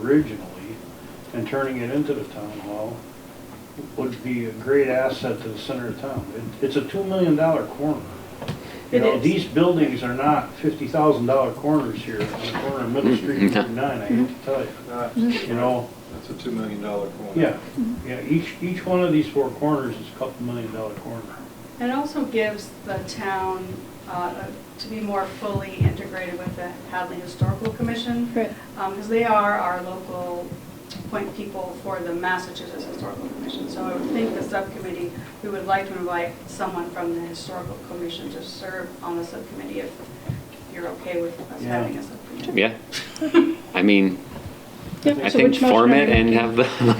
originally and turning it into the town hall would be a great asset to the center of town. It- It's a two million dollar corner. You It know, is. these buildings are not fifty thousand dollar corners here on the corner of Middle Street and 39, I have to tell you. That's You know, that's a $2 million corner. yeah, yeah, each, each one of these four corners is a couple million dollar corner. It also gives the town uh, to be more fully integrated with the Hadley Historical Commission. Right. Because they are our local point people for the Massachusetts Historical Commission. So I would think the subcommittee, we would like to invite someone from the Historical Commission to serve on the subcommittee if you're okay with us Yeah. having a subcommittee. Yeah. I mean, Yep, I so think which motion form are we it and making? have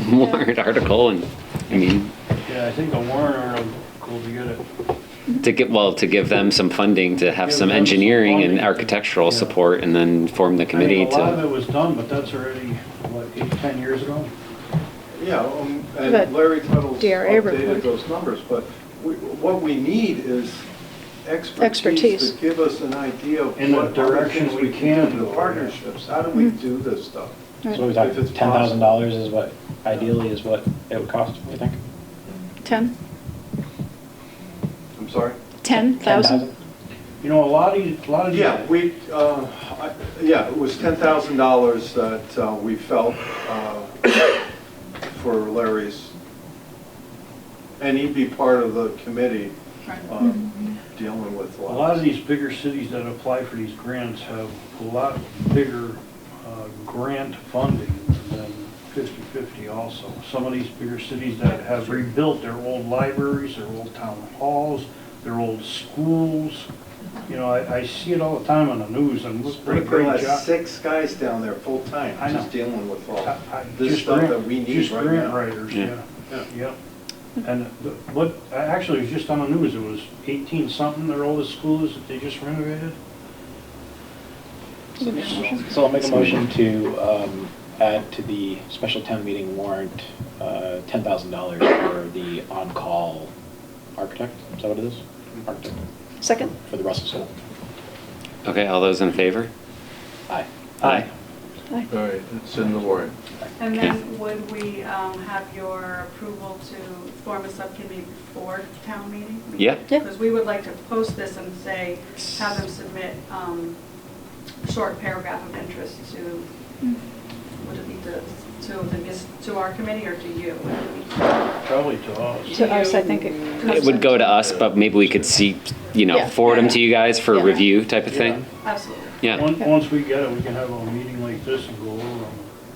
the warrant article and, I mean, Yeah, I think a warrant article will be good at to get, well, to give them some funding to have Give some them some engineering and funding. architectural Yeah. support and then form the committee I mean, a lot of to. it was done, but that's already, what, eight, 10 years ago? Yeah, um, But and Larry Tuttle's DRA updated report. those numbers, but we- what we need is expertise Expertise. to give us an idea of In the what other direction things we we can can do, go, the yeah. partnerships, how do we do this stuff? Mm-hmm. Right. So we If talked, it's ten thousand dollars is what, ideally is what it would cost, I think? Ten? I'm sorry? Ten thousand? You know, a lot of, these- a lot of. these- Yeah, we, uh, I- yeah, it was $10,000 that uh, we felt uh, for Larry's, and he'd be part of the committee Right. uh, dealing with A lot of lots. these bigger cities that apply for these grants have a lot bigger uh, grant funding than 50/50 also. Some of these bigger cities that have rebuilt their old libraries, their old town halls, their old schools. You know, I, I see it all the time on the news and look, what a We could great have job. six guys down there full-time, I know. just dealing with all I- I- this just stuff grant- that we need Just right grant now. writers, Yeah. yeah. Yeah. Yep. And the- what, actually, it was just on the news, it was 18-something, their oldest schools that they just renovated. So I'll make a motion to, um, add to the special town meeting warrant, uh, ten thousand dollars for the on-call architect, is that what it is? Architect, Second? for the Russell School. Okay, all those in favor? Aye. Aye. Aye. All right, it's in the warrant. And then would we um, have your approval to form a subcommittee before town meeting? Yeah. Yeah. Because we would like to post this and say, have them submit um, a short paragraph of interest to, would it be to, to the, mis- to our committee or to you? Probably to us. To us, I think it costs. It would go to us, but maybe we could see, you know, Yeah. forward them to you guys for Yeah. review type of thing. Absolutely. Yeah. Once, once we get it, we can have a meeting like this and go over them.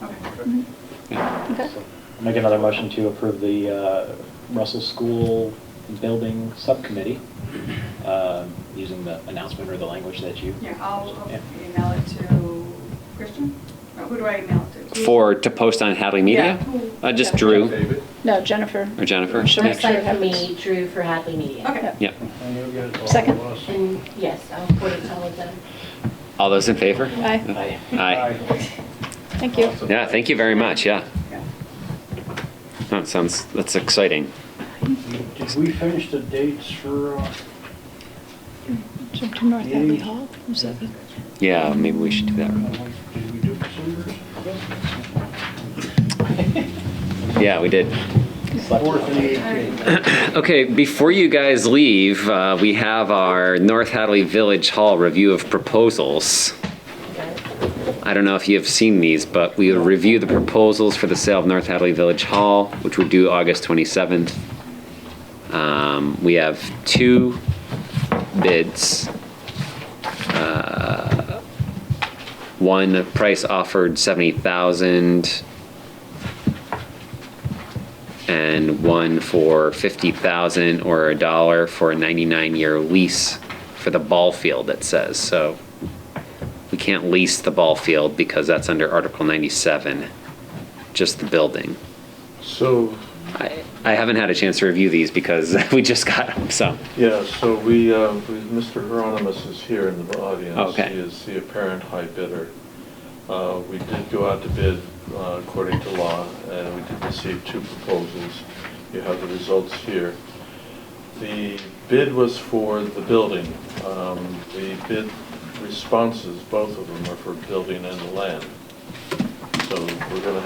Okay. Yeah. Mm-hmm. Okay. Make another motion to approve the uh, Russell School Building Subcommittee, um, using the announcement or the language that you. Yeah, I'll I'll Yeah. email it to Christian? Or Who do I email it to? For, to post on Hadley Media? Yeah. Uh, just Yeah. Drew David? No, Jennifer. or Jennifer? Sure. Yeah. Make sure it Website for me, happens. Drew for Hadley Media. Okay. Yeah. And you'll get it to all Second. of us. And yes, I'll put it all of them. All those in favor? Aye. Aye. Aye. Thank you. Awesome. Yeah, thank you very much, yeah. Okay. That sounds, that's exciting. Did we finish the dates for, uh, So To North Hadley Hall. Is that- Yeah, maybe we should do that. did we do Consumers? Yeah, we did. Fourth and the All right. eighteenth. Okay, before you guys leave, uh, we have our North Hadley Village Hall review of proposals. I don't know if you have seen these, but we will review the proposals for the sale of North Hadley Village Hall, which were due August 27th. Um, We have two bids. Uh, One, the price offered 70,000 and one for 50,000 or a dollar for a 99-year lease for the ball field, it says. So we can't lease the ball field because that's under Article 97, just the building. So, I I haven't had a chance to review these because we just got them, so. yeah, so we, uh, we- Mr. Hieronymus is here in the audience. Okay. He is the apparent high bidder. Uh, We did go out to bid uh, according to law, and we did receive two proposals. You have the results here. The bid was for the building. Um, The bid responses, both of them are for building and land. So so we're gonna